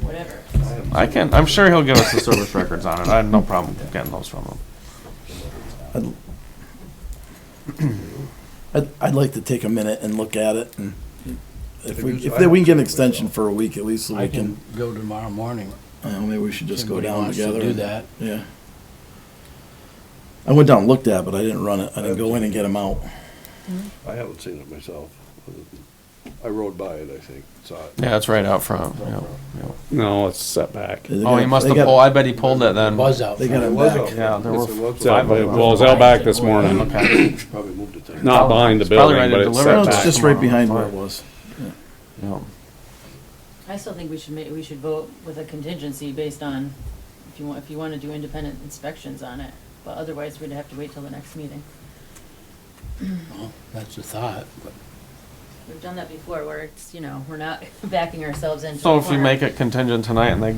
whatever. I can, I'm sure he'll give us the service records on it. I have no problem getting those from him. I'd- I'd, I'd like to take a minute and look at it and if we, if we can get an extension for a week at least, so I we can, can go tomorrow morning. uh, maybe we should just go Somebody down wants to together. Do and- that. Yeah. I went down and looked at it, but I didn't run it. I didn't go in and get them out. I haven't seen it myself. I rode by it, I think, saw it. Yeah, it's right out front. Yeah, yeah. No, it's setback. They Oh, got- he must they have got- pulled, I bet he pulled it then. Buzz out. They got It it was back. out front. Yeah, there Yes, were it was Set- out front. Well, it was out back this morning, Okay. Probably moved it. then. not behind the It's probably building, ready but to it's deliver. No, set Right it's back. back. just right behind where it was. Yeah. I still think we should ma, we should vote with a contingency based on, if you want, if you wanna do independent inspections on it. But otherwise, we'd have to wait till the next meeting. Well, That's a thought, but We've done that before where it's, you know, we're not backing ourselves into. So a if we corner. make it contingent tonight and they,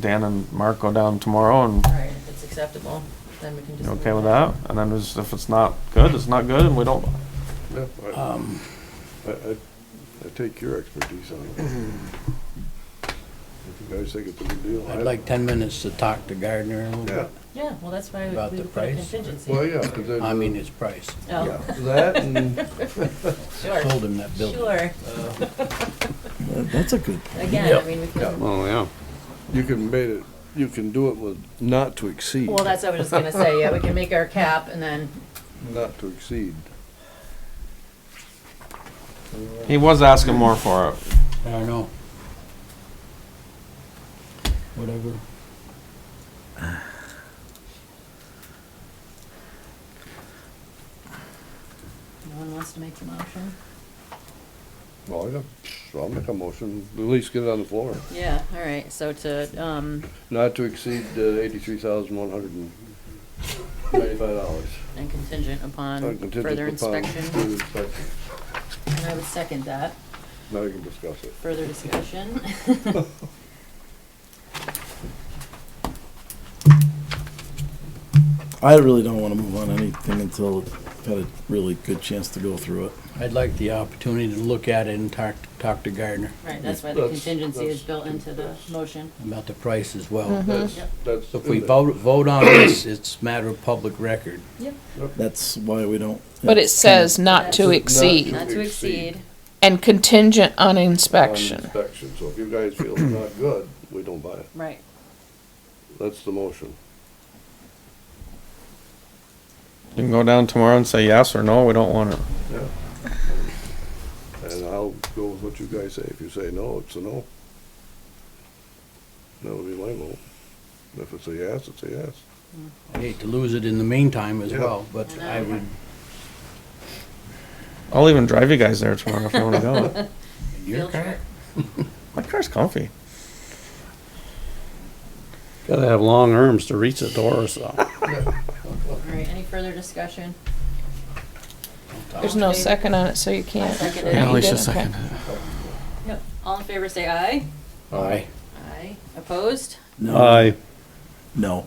Dan and Mark go down tomorrow and All right, if it's acceptable, then we can just. you move okay with on. that? And then it's- if it's not good, it's not good and we don't, Yeah, I- um, I, I, I take your expertise on it. If you guys think it's a good deal. I- I'd like ten minutes to talk to Gardner a little Yeah, bit. Yeah, well, that's why we About we the would put a price? contingency. well, yeah, 'cause then, I mean, his price. yeah, Oh, that and, Sold sure, him that building. sure. That- That's a good point. Again, I mean, we could, Oh, yeah. you can made it, you can do it with not to exceed, well, that's what I was just gonna say, yeah, we can make our cap and then, not to exceed. he was asking more for it. I don't know. Whatever. no one wants to make the motion. Well, yeah, so I'll make a motion, at least get it on the floor, Yeah, all right, so to, um, not to exceed uh, eighty-three thousand one hundred and ninety-five dollars. and contingent upon further inspection, and I would second that, Now you can discuss it. further discussion. I really don't want to move on anything until I've had a really good chance to go through it. I'd like the opportunity to look at it and talk, talk to Gardner Right, that's why the That's- contingency that's- is built into the motion. about the price as Mm-hmm. well. That's, that's. So if we in it. vote, vote on this, it's a matter of public record. Yep. That's why we don't. But it it's kinda- says not to Not- exceed Not to exceed, and contingent on On inspection. Inspection, so if you guys feel it's not good, we don't buy it. right, That's the motion. You can go down tomorrow and say yes or no, we don't want it. Yeah. And I'll go with what you guys say. If you say no, it's a no. That would be my vote. If it's a yes, it's a yes. I hate to lose it in the meantime as Yeah. well, but I would, I'll even drive you guys there tomorrow if you wanna go. your field car, trip, My car's comfy. Gotta have long arms to reach the door, so. all right, any further discussion? There's no second on it, so you I can't. seconded Yeah, it. Alicia Okay. seconded Yep, all in favor, say aye. aye. Aye. Opposed? No, I, no.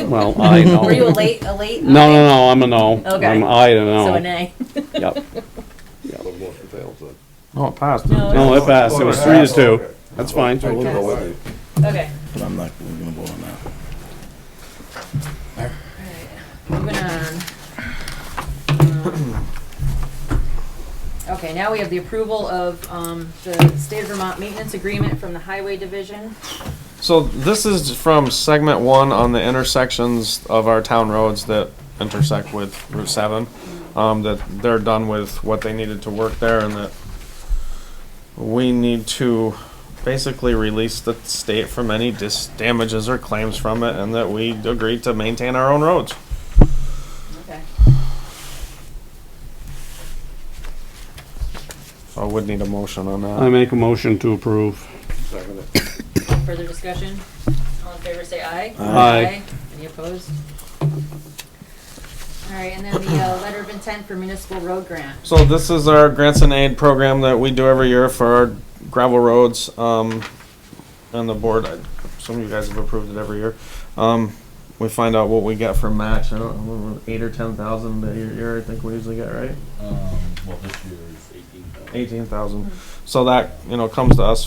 well, I know. Were you a late, a late? No, no, no, I'm a no. Okay. I'm I to no. So a nay. Yep. Yeah, the motion fails then. No, Oh, it passed. No, didn't it? No, it passed. It was three to two. Okay. That's fine. I will go with it, Okay, but I'm not going to vote on that. all right, moving on. Um, Okay, now we have the approval of, um, the State of Vermont Maintenance Agreement from the Highway Division. So this is from segment one on the intersections of our town roads that intersect with Route seven. Um, that they're done with what they needed to work there and that we need to basically release the state from any dis- damages or claims from it and that we agreed to maintain our own roads. Okay. So I would need a motion on I that. make a motion to approve. Second it. Further discussion? All in favor, say aye. Aye. Any opposed? All right, and then the, uh, letter of intent for municipal road grant. So this is our grants and aid program that we do every year for our gravel roads, um, and the board, I- some of you guys have approved it every year. Um, we find out what we get for match, I don't remember, eight or ten thousand a year- year, I think we usually get, right? Um, well, this year is eighteen thousand. Eighteen thousand, so that, you know, comes to us